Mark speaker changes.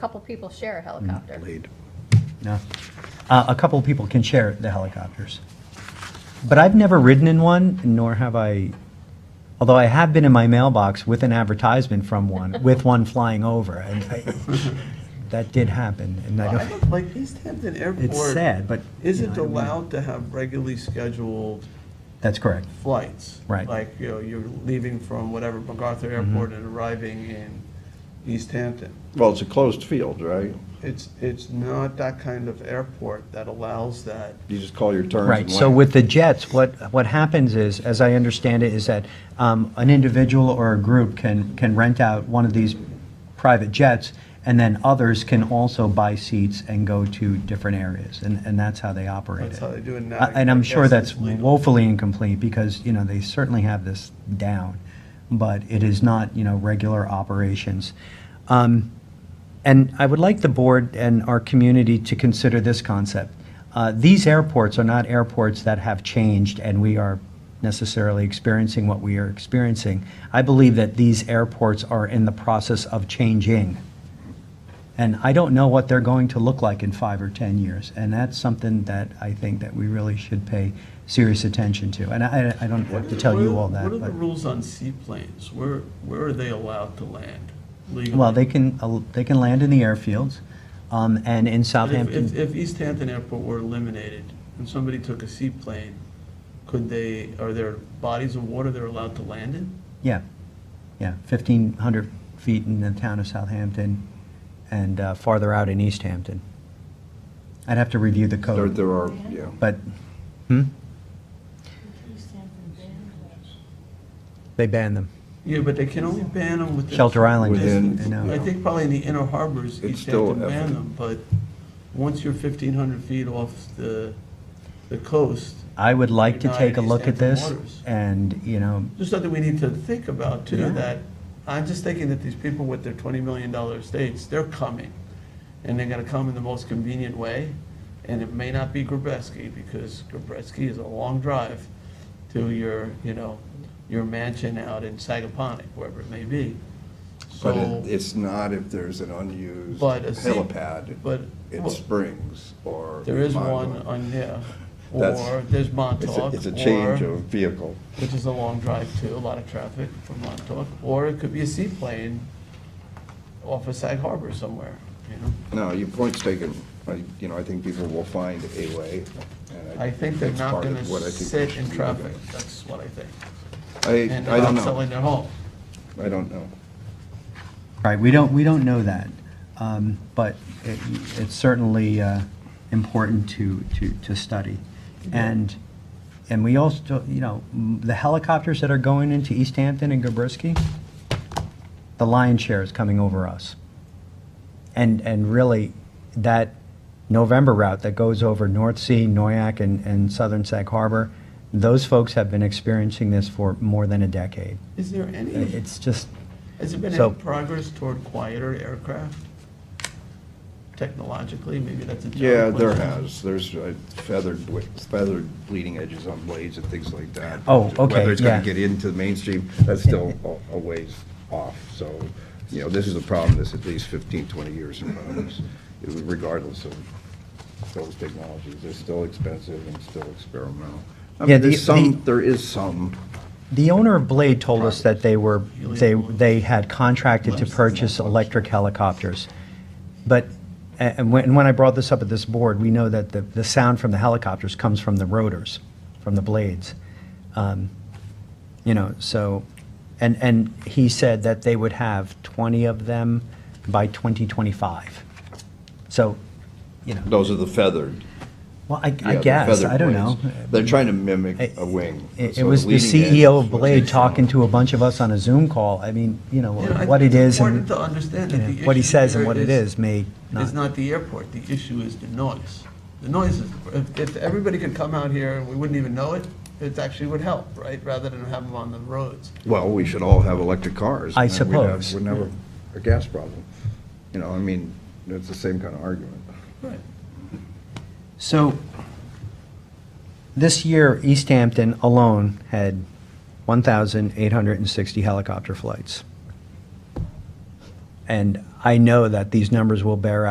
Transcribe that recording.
Speaker 1: couple people share a helicopter.
Speaker 2: Blade.
Speaker 3: No. Uh, a couple of people can share the helicopters. But I've never ridden in one, nor have I, although I have been in my mailbox with an advertisement from one, with one flying over. And I, that did happen. And I
Speaker 4: I
Speaker 3: don't,
Speaker 4: don't- Like East Hampton Airport.
Speaker 3: it's sad, but. you
Speaker 4: Isn't
Speaker 3: know, I mean,
Speaker 4: allowed to have regularly scheduled
Speaker 3: That's correct.
Speaker 4: flights.
Speaker 3: Right. Mm-hmm.
Speaker 4: Like, you know, you're leaving from whatever MacArthur Airport and arriving in East Hampton.
Speaker 2: Well, it's a closed field, right?
Speaker 4: It's, it's not that kind of airport that allows that.
Speaker 2: You just call your turns.
Speaker 3: Right,
Speaker 2: and
Speaker 3: so
Speaker 2: land.
Speaker 3: with the jets, what, what happens is, as I understand it, is that um, an individual or a group can, can rent out one of these private jets, and then others can also buy seats and go to different areas, and, and that's how they operate it.
Speaker 4: That's how they do it now.
Speaker 3: Uh, And
Speaker 4: I
Speaker 3: I'm sure
Speaker 4: guess
Speaker 3: that's
Speaker 4: it's legal.
Speaker 3: woefully incomplete, because, you know, they certainly have this down, but it is not, you know, regular operations. Um, and I would like the board and our community to consider this concept. Uh, These airports are not airports that have changed and we are necessarily experiencing what we are experiencing. I believe that these airports are in the process of changing. And I don't know what they're going to look like in five or 10 years. And that's something that I think that we really should pay serious attention to. And I, I don't have to tell you all that.
Speaker 4: What are the
Speaker 3: but-
Speaker 4: rules on seaplanes? Where, where are they allowed to land legally?
Speaker 3: Well, they can, uh, they can land in the airfields um, and in
Speaker 4: But if-
Speaker 3: Southampton.
Speaker 4: If, if East Hampton Airport were eliminated and somebody took a seaplane, could they, are there bodies of water they're allowed to land in?
Speaker 3: Yeah, yeah, 1,500 feet in the town of Southampton and uh, farther out in East Hampton. I'd have to review the
Speaker 2: There,
Speaker 3: code,
Speaker 2: there are, yeah.
Speaker 3: but, hmm, they banned them.
Speaker 4: Yeah, but they can only ban them within.
Speaker 3: Shelter Island,
Speaker 2: Within-
Speaker 3: I
Speaker 4: I
Speaker 3: know.
Speaker 4: think probably in the inner harbors,
Speaker 2: It's
Speaker 4: East
Speaker 2: still
Speaker 4: Hampton
Speaker 2: effort.
Speaker 4: banned them, but once you're 1,500 feet off the, the coast,
Speaker 3: I would like to
Speaker 4: Not
Speaker 3: take a
Speaker 4: in East
Speaker 3: look at
Speaker 4: Hampton
Speaker 3: this
Speaker 4: waters.
Speaker 3: and, you know,
Speaker 4: just something we need to think about
Speaker 3: Yeah.
Speaker 4: too, that, I'm just thinking that these people with their $20 million estates, they're coming. And they're gonna come in the most convenient way, and it may not be Gabreski, because Gabreski is a long drive to your, you know, your mansion out in Sagaponic, wherever it may be.
Speaker 2: But
Speaker 4: So,
Speaker 2: it, it's not if there's an unused
Speaker 4: But a sea-
Speaker 2: helipad
Speaker 4: but.
Speaker 2: in
Speaker 4: well,
Speaker 2: Springs or.
Speaker 4: There is one
Speaker 2: Monmouth.
Speaker 4: on, yeah,
Speaker 2: That's-
Speaker 4: or there's
Speaker 2: It's a-
Speaker 4: Montauk,
Speaker 2: It's a change
Speaker 4: or,
Speaker 2: of vehicle.
Speaker 4: which is a long drive too, a lot of traffic from Montauk, or it could be a seaplane off of Sag Harbor somewhere, you know?
Speaker 2: No, your point's taken. I, you know, I think people will find a way. and
Speaker 4: I think they're
Speaker 2: that's
Speaker 4: not
Speaker 2: part of
Speaker 4: gonna
Speaker 2: what I think we
Speaker 4: sit
Speaker 2: should
Speaker 4: in
Speaker 2: be
Speaker 4: traffic,
Speaker 2: looking
Speaker 4: that's what I think.
Speaker 2: at. I,
Speaker 4: And
Speaker 2: I
Speaker 4: they're
Speaker 2: don't
Speaker 4: not
Speaker 2: know.
Speaker 4: selling their home.
Speaker 2: I don't know.
Speaker 3: right, we don't, we don't know that. Um, But it- it's certainly uh, important to, to, to study. And, and we also, you know, m- the helicopters that are going into East Hampton and Gabrisky, the lion's share is coming over us. And, and really, that November route that goes over North Sea, Noyak, and, and southern Sag Harbor, those folks have been experiencing this for more than a decade.
Speaker 4: Is there any,
Speaker 3: It's just,
Speaker 4: has there been
Speaker 3: so-
Speaker 4: any progress toward quieter aircraft? Technologically, maybe that's a John
Speaker 2: Yeah, there
Speaker 4: question.
Speaker 2: has. There's uh, feathered, ble- feathered bleeding edges on blades and things like that.
Speaker 3: Oh, okay,
Speaker 2: Whether it's
Speaker 3: yeah.
Speaker 2: gonna get into the mainstream, that's still a- a ways off. So, you know, this is a problem that's at least 15, 20 years in front of us, regardless of those technologies. They're still expensive and still experimental. I
Speaker 3: Yeah,
Speaker 2: mean,
Speaker 3: the-
Speaker 2: there's
Speaker 3: the-
Speaker 2: some, there is some.
Speaker 3: The owner of Blade told us that they were, they, they had contracted to purchase electric helicopters. But, a- and when, and when I brought this up at this board, we know that the, the sound from the helicopters comes from the rotors, from the blades. Um, You know, so, and, and he said that they would have 20 of them by 2025. So, you know,
Speaker 2: Those are the feathered.
Speaker 3: well, I,
Speaker 2: yeah,
Speaker 3: I
Speaker 2: the
Speaker 3: guess,
Speaker 2: feathered
Speaker 3: I don't know.
Speaker 2: blades. They're trying to mimic
Speaker 3: It-
Speaker 2: a wing.
Speaker 3: It
Speaker 2: So
Speaker 3: it was the
Speaker 2: leading edge
Speaker 3: CEO
Speaker 2: is
Speaker 3: of
Speaker 2: what
Speaker 3: Blade
Speaker 2: they
Speaker 3: talking
Speaker 2: found.
Speaker 3: to a bunch of us on a Zoom call. I mean, you know,
Speaker 4: You know, I
Speaker 3: what
Speaker 4: think
Speaker 3: it
Speaker 4: it's
Speaker 3: is and
Speaker 4: Important to understand
Speaker 3: you
Speaker 4: that
Speaker 3: know,
Speaker 4: the
Speaker 3: what he
Speaker 4: issue
Speaker 3: says and
Speaker 4: there
Speaker 3: what it is may
Speaker 4: It's
Speaker 3: not.
Speaker 4: not the airport, the issue is the noise. The noise is, if, if everybody could come out here and we wouldn't even know it, it actually would help, right? Rather than have them on the roads.
Speaker 2: Well, we should all have electric cars.
Speaker 3: I
Speaker 2: and then we'd have-
Speaker 3: suppose.
Speaker 2: We'd never, a gas problem. You know, I mean, it's the same kind of argument.
Speaker 4: Right.
Speaker 3: So this year, East Hampton alone had 1,860 helicopter flights. And I know that these numbers will bear out.